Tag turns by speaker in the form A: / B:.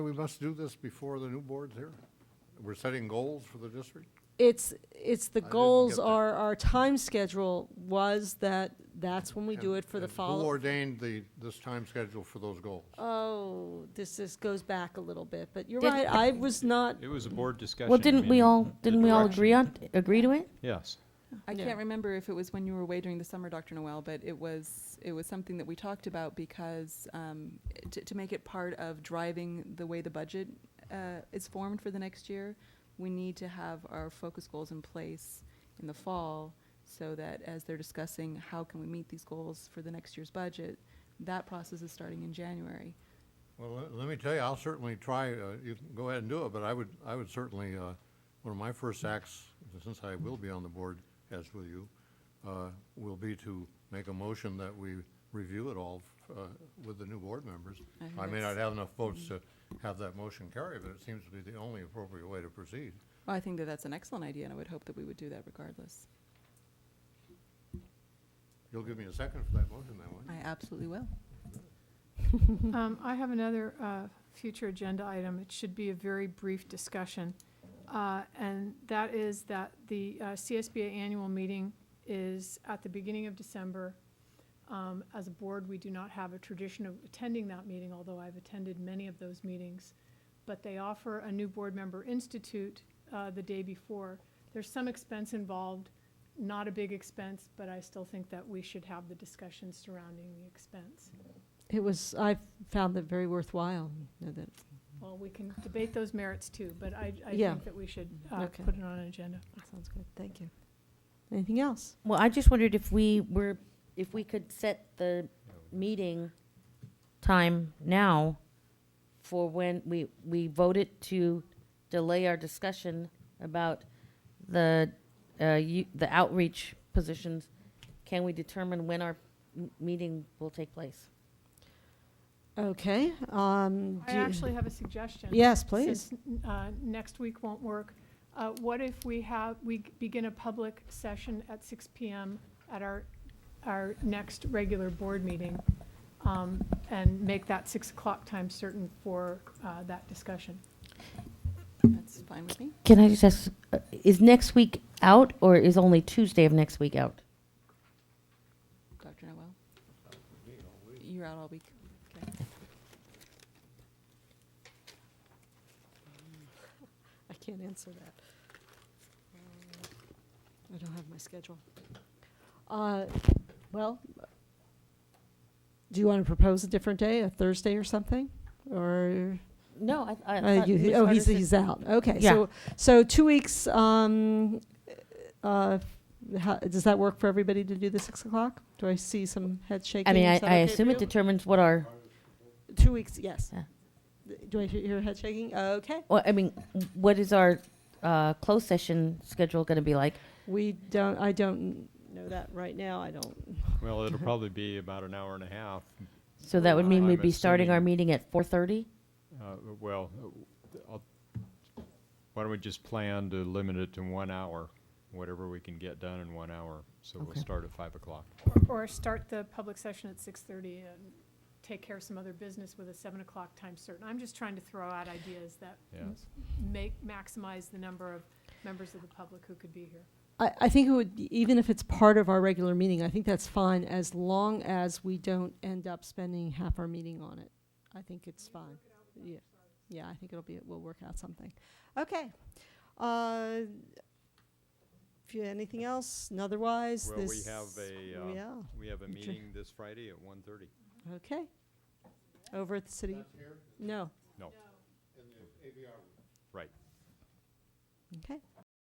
A: We must do this before the new board's here? We're setting goals for the district?
B: It's, it's, the
A: I didn't
B: goals
A: get that.
B: are, our time schedule was that, that's when we do it for the
A: And Who
B: follow.
A: ordained the, this time schedule for those goals?
B: Oh, this, this goes back a little bit, but you're
C: Did-
B: right, I was not,
D: It was a board discussion.
C: Well, didn't we all, didn't we all agree on, agree to it?
D: Yes.
E: I
B: Yeah.
E: can't remember if it was when you were away during the summer, Dr. Noel, but it was it was something that we talked about because um, to, to make it part of driving the way the budget uh, is formed for the next year, we need to have our focus goals in place in the fall so that as they're discussing how can we meet these goals for the next year's budget, that process is starting in January.
A: Well, let- let me tell you, I'll certainly try, uh, you can go ahead and do it, but I would, I would certainly, uh, one of my first acts, since I will be on the board, as will you, uh, will be to make a motion that we review it all uh, with the new board members.
E: I think
A: I may not
E: that's-
A: have enough votes to
B: Mm-hmm.
A: have that motion carry, but it seems to be the only appropriate way to proceed.
E: Well, I think that that's an excellent idea, and I would hope that we would do that regardless.
A: You'll give me a second for that motion, then, won't you?
E: I absolutely will.
F: Um, I have another uh, future agenda item. It should be a very brief discussion. Uh, And that is that the uh, CSBA annual meeting is at the beginning of December. Um, As a board, we do not have a tradition of attending that meeting, although I've attended many of those meetings. But they offer a new board member institute uh, the day before. There's some expense involved, not a big expense, but I still think that we should have the discussion surrounding the expense.
B: it was, I found that very worthwhile, you know, that,
F: Well, we can debate those merits too, but I, I
B: Yeah.
F: think that we should uh,
B: Okay.
F: put it on an agenda.
B: that sounds good, thank you. Anything else?
C: Well, I just wondered if we were, if we could set the meeting time now for when we, we voted to delay our discussion about the, uh, you- the outreach positions. Can we determine when our m- meeting will take place?
B: Okay, um,
F: I
B: do you-
F: actually have a suggestion.
B: yes, please.
F: Since uh, next week won't work, uh, what if we have, we begin a public session at 6 PM at our, our next regular board meeting? um, And make that 6 o'clock time certain for uh, that discussion.
E: That's fine with me.
C: Can I just ask, uh, is next week out or is only Tuesday of next week out?
E: Dr. Noel? You're out all week. Okay.
B: I can't answer that. I don't have my schedule. Uh, Well, do you want to propose a different day, a Thursday or something? Or,
C: No, I, I.
B: uh,
C: thought
B: you-
C: Ms.
B: oh, he's,
C: Hardison-
B: he's out, okay.
C: Yeah.
B: So, so two weeks, um, uh, how- does that work for everybody to do the 6 o'clock? Do I see some head shaking?
C: I mean, I,
B: Is that
C: I
B: okay for
C: assume it
B: you?
C: determines what our,
B: Two weeks, yes.
C: Yeah.
B: Do I hear hear head shaking? Okay.
C: well, I mean, what is our, uh, closed session schedule gonna be like?
B: We don't, I don't know that right now, I don't.
D: Well, it'll probably be about an hour and a half.
C: So that would mean
D: I'm
C: we'd be starting our
D: assuming-
C: meeting at four thirty?
D: Uh, Well, uh, I'll- why don't we just plan to limit it to one hour, whatever we can get done in one hour. So we'll
C: Okay.
D: start at 5 o'clock.
F: Or- Or start the public session at 6:30 and take care of some other business with a 7 o'clock time certain. I'm just trying to throw out ideas that m-
D: Yes.
F: make, maximize the number of members of the public who could be here.
B: I, I think it would, even if it's part of our regular meeting, I think that's fine, as long as we don't end up spending half our meeting on it. I think it's fine. Yeah, yeah, I think it'll be, we'll work out something. Okay. Uh, If you, anything else, and otherwise,
D: Well, we
B: this.
D: have a, uh,
B: Yeah,
D: We have a
B: Ju-
D: meeting this Friday at 1:30.
B: okay. Over at the city. No,
D: No,
A: In the ABR
D: right.
B: okay.